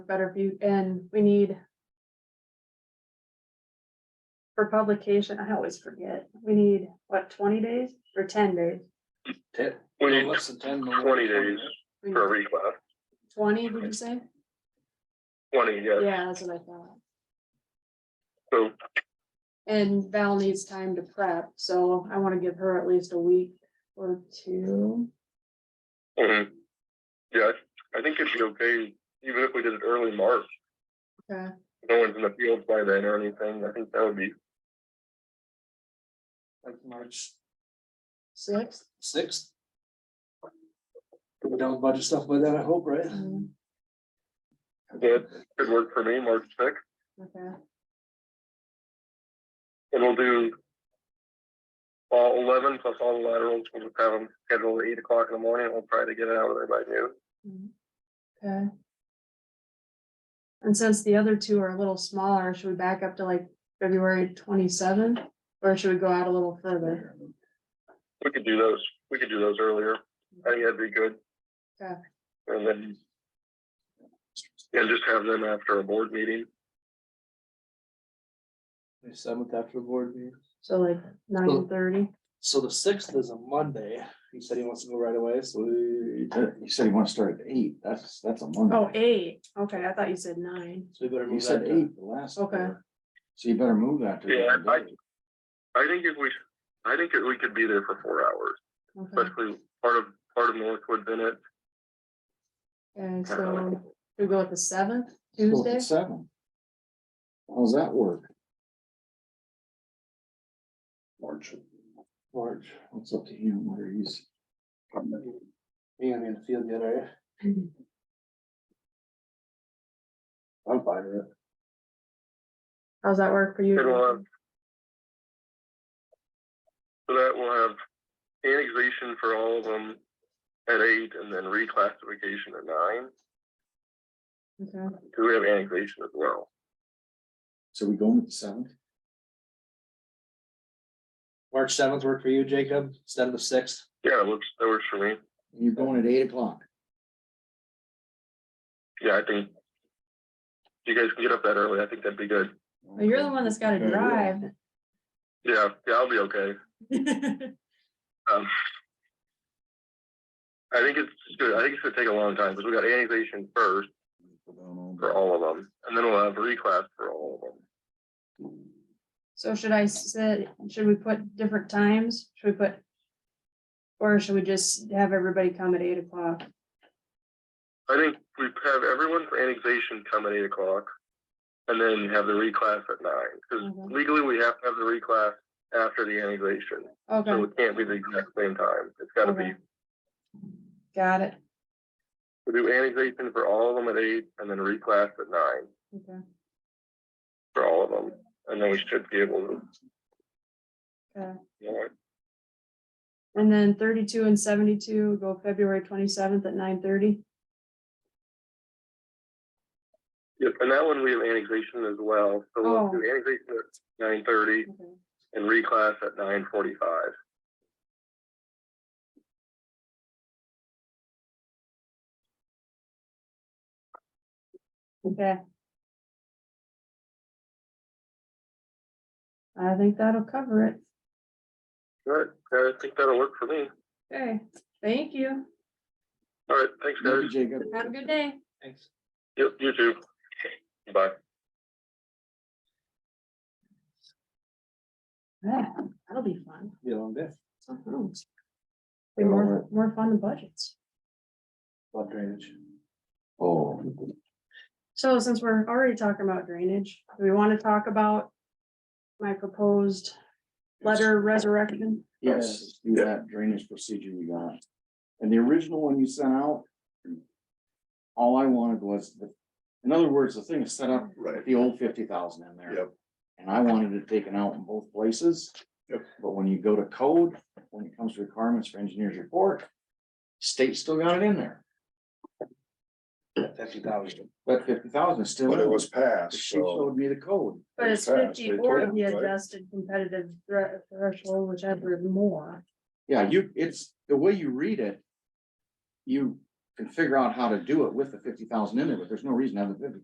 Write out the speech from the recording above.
better view, and we need. For publication, I always forget, we need, what, twenty days or ten days? Ten, We no, need less than ten. no, twenty days We need for reclass, Twenty, did you say? twenty, yes. Yeah, that's what I thought. So And Val needs time to prep, so I wanna give her at least a week or two. mhm. Yeah, I I think it'd be okay, even if we did it early March, Okay, no one's in the field by then or anything, I think that would be, Like March six? sixth. We're done with budget stuff by then, I hope, right? Mm, that could work for me, March sixth, Okay, and we'll do. All eleven plus all the laterals, we'll just have them scheduled at eight o'clock in the morning, we'll try to get it out of there by noon. mm, okay. And since the other two are a little smaller, should we back up to like February twenty-seventh? Or should we go out a little further? We could do those, we could do those earlier, I think that'd be good. Okay. And then. And just have them after a board meeting. May Seventh after the board meeting. So like nine thirty? So the sixth is a Monday. He said he wants to go right away, so we, You said you want to start at eight, that's, that's a Monday. Oh, eight, okay, I thought you said nine. so we better You move said that. to- eight the last. Okay. time. So you better move that to. the Yeah, other I- day. I think if we, I think if we could be there for four hours, Okay, especially part of, part of Northwood's in it. and so we go with the seventh, Go Tuesday? at Seven. How's that work? March. March. It's up to him where he's. You gonna be in the field yet, are you? I'm fine with it. How's that work for you? It'll have. So that will have annexation for all of them at eight and then reclassification at nine, Okay, because we have annexation as well. So we going with the seventh? March seventh work for you, Jacob, instead of the sixth. Yeah, that works, that works for me. And You're going at eight o'clock. Yeah, I think. You guys can get up that early. I think that'd be good. Well, you're the one that's gotta Okay. drive. Yeah, yeah, I'll be okay. Um, I think it's good. I think it's gonna take a long time because we got annexation first for all of them, and then we'll have reclass for all of them. So should I say, should we put different times? Should we put? Or should we just have everybody come at eight o'clock? I think we have everyone for annexation come at eight o'clock, and then have the reclass at nine. Because Mhm. legally, we have to have the reclass after the annexation, so Okay, it can't be the exact same time. It's gotta be Okay. got it. we do annexation for all of them at eight, and then reclass at nine Okay, for all of them, and then we should be able to. Okay. Yeah. and then thirty-two and seventy-two go February twenty-seventh at nine thirty? Yep, and that one we have annexation as well, so Oh. we'll do annexation at nine thirty Okay. and reclass at nine forty-five. Okay. I think that'll cover it. Alright, I think that'll work for me. Okay, thank you. Alright, thanks Thank you, guys. Jacob. Have a good day. Thanks. Yep, you too. Bye. Yeah, that'll be fun. Be a long day. Something else. Be more, more fun than budgets. Lot of drainage. Oh, So since we're already talking about drainage, do we want to talk about my proposed letter of resurrection? yes, do that drainage procedure you got. And the original one you sent out. All I wanted was, the- in other words, the thing is set up Right, put the old fifty thousand in there. Yep. And I wanted it taken out in both places. Yep. But when you go to code, when it comes to requirements for engineer's report, state still got it in there, Fifty thousand. but fifty thousand is still. but it in. was passed, She so showed me the code. But it's They passed, fifty they or told the us, right? adjusted competitive thre- threshold, whichever is more. Yeah, you, it's, the way you read it. You, can figure out how to do it with the fifty thousand in there, but there's no reason to have the fifty